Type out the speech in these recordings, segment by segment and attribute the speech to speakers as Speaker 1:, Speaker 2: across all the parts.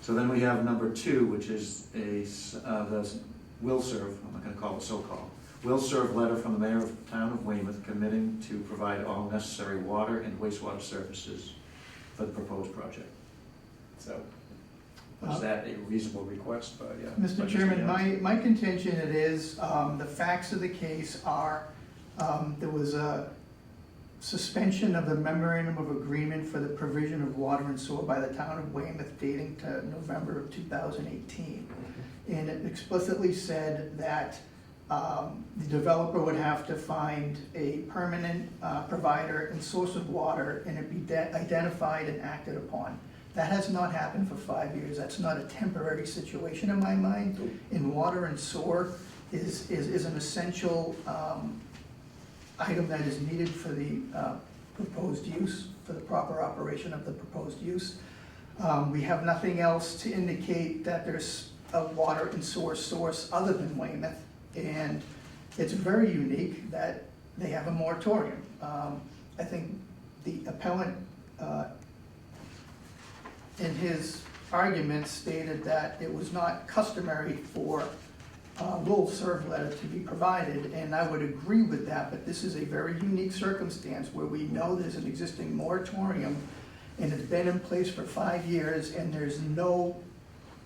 Speaker 1: So then we have number two, which is a, s- uh, the will serve, I'm not gonna call it so-called, will serve letter from the mayor of the town of Weymouth committing to provide all necessary water and wastewater services for the proposed project. So, was that a reasonable request, uh, but yeah.
Speaker 2: Mr. Uh, Chairman, my, my contention it is, um, the facts of the case are, um, there was a suspension of the memorandum of agreement for the provision of water and sewer by the town of Weymouth dating to November of two thousand eighteen. And it explicitly said that, um, the developer would have to find a permanent, uh, provider and source of water, and it be de- identified and acted upon. That has not happened for five years, that's not a temporary situation in my mind. And water and sewer is, is, is an essential, um, item that is needed for the, uh, proposed use, for the proper operation of the proposed use. Um, we have nothing else to indicate that there's a water and sewer source other than Weymouth. And it's very unique that they have a moratorium. Um, I think the appellant, uh, in his argument stated that it was not customary for a will serve letter to be provided, and I would agree with that, but this is a very unique circumstance where we know there's an existing moratorium and it's been in place for five years, and there's no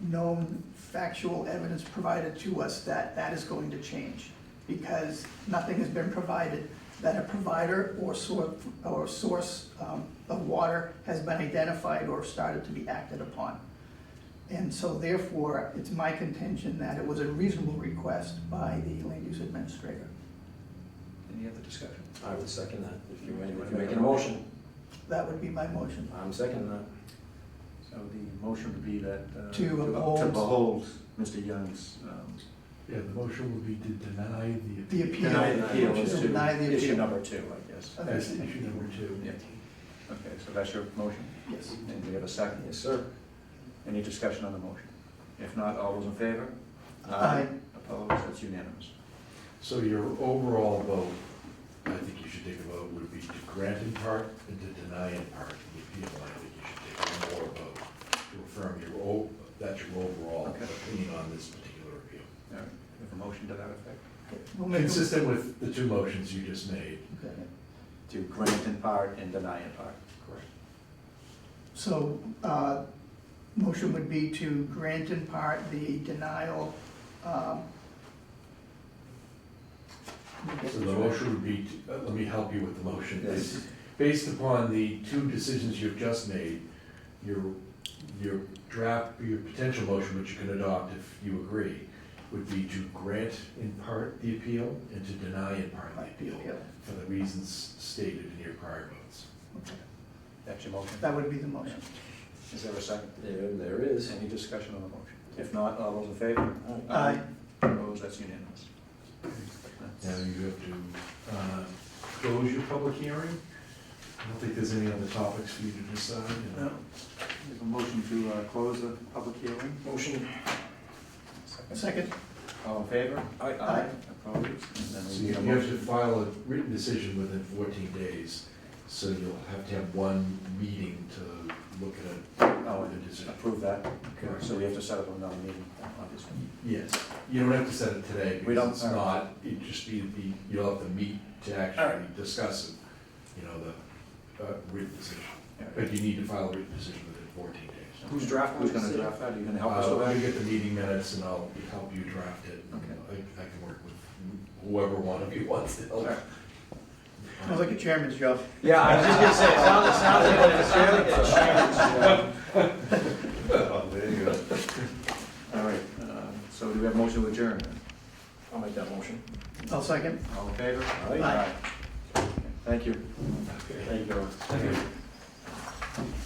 Speaker 2: known factual evidence provided to us that that is going to change, because nothing has been provided that a provider or source, or source um, of water has been identified or started to be acted upon. And so therefore, it's my contention that it was a reasonable request by the land use administrator.
Speaker 1: Any other discussion?
Speaker 3: I would second that, if you
Speaker 1: You
Speaker 3: make,
Speaker 1: wanna
Speaker 3: if you
Speaker 1: make
Speaker 3: make
Speaker 1: a
Speaker 3: a motion,
Speaker 2: That would be my motion.
Speaker 3: I'm seconding that.
Speaker 1: So the motion would be that. uh,
Speaker 2: To
Speaker 1: To
Speaker 2: uphold-
Speaker 1: behold Mr. Young's, um,
Speaker 4: Yeah, the motion will be to deny the.
Speaker 2: The appeal.
Speaker 1: deny the appeal is
Speaker 2: To deny the
Speaker 1: to issue
Speaker 2: appeal.
Speaker 1: number two, I guess.
Speaker 4: That's issue number two.
Speaker 1: Yeah. Okay, so that's your motion?
Speaker 2: Yes.
Speaker 1: And we have a second?
Speaker 3: Yes, sir.
Speaker 1: Any discussion on the motion? If not, all those in favor?
Speaker 2: Aye.
Speaker 1: Opposed? That's unanimous.
Speaker 4: So your overall vote, I think you should take a vote, would be to grant in part and to deny in part the appeal. I think you should take one more vote to affirm your, o- that's your overall
Speaker 1: Okay.
Speaker 4: opinion on this particular appeal.
Speaker 1: All right, we have a motion to that effect?
Speaker 2: We'll make a-
Speaker 4: Consistent with the two motions you just made.
Speaker 2: Okay.
Speaker 1: To grant in part and deny in part.
Speaker 4: Correct.
Speaker 2: So, uh, motion would be to grant in part the denial, um.
Speaker 4: So the motion would be, to- uh, let me help you with the motion.
Speaker 1: Yes.
Speaker 4: Based upon the two decisions you've just made, your, your draft, your potential motion, which you can adopt if you agree, would be to grant in part the appeal and to deny in part the appeal for the reasons stated in your prior votes.
Speaker 2: Okay.
Speaker 1: That's your motion?
Speaker 2: That would be the motion.
Speaker 1: Is there a second?
Speaker 3: There, there is.
Speaker 1: Any discussion on the motion? If not, all those in favor?
Speaker 3: Aye.
Speaker 2: Aye.
Speaker 1: Opposed? That's unanimous.
Speaker 4: Now you have to uh, close your public hearing. I don't think there's any other topics for you to decide.
Speaker 1: No. We have a motion to uh, close the public hearing.
Speaker 3: Motion.
Speaker 2: Second,
Speaker 1: All in favor?
Speaker 3: Aye.
Speaker 1: Opposed? And then
Speaker 4: So
Speaker 1: we
Speaker 4: you
Speaker 1: need a
Speaker 4: have
Speaker 1: motion.
Speaker 4: to file a written decision within fourteen days, so you'll have to have one meeting to look at a,
Speaker 1: Oh,
Speaker 4: a decision.
Speaker 1: Approve that.
Speaker 4: Correct.
Speaker 1: So we have to set up another meeting, obviously.
Speaker 4: Yes, you don't have to set it today,
Speaker 1: We don't-
Speaker 4: because it's not, it just be, the you'll have to meet to actually discuss it, you know, the, uh, written decision. But you need to file a written decision within fourteen days.
Speaker 3: Who's drafting
Speaker 1: Who's
Speaker 3: the
Speaker 1: gonna
Speaker 3: decision?
Speaker 1: draft that? Are you gonna help us with
Speaker 4: Uh, I'll
Speaker 1: that?
Speaker 4: get the meeting minutes and I'll help you draft it.
Speaker 1: Okay.
Speaker 4: I, I can work with whoever one of you wants to help.
Speaker 1: All right.
Speaker 2: sounds like a chairman's job.
Speaker 3: Yeah, I was just gonna say, it sounds, it sounds like a, it sounds like a
Speaker 1: Oh, there you go. All right, um, so do we have motion to adjourn?
Speaker 3: I'll make that motion.
Speaker 2: I'll second.
Speaker 1: All in favor?
Speaker 3: Aye.
Speaker 1: Thank you. Thank you.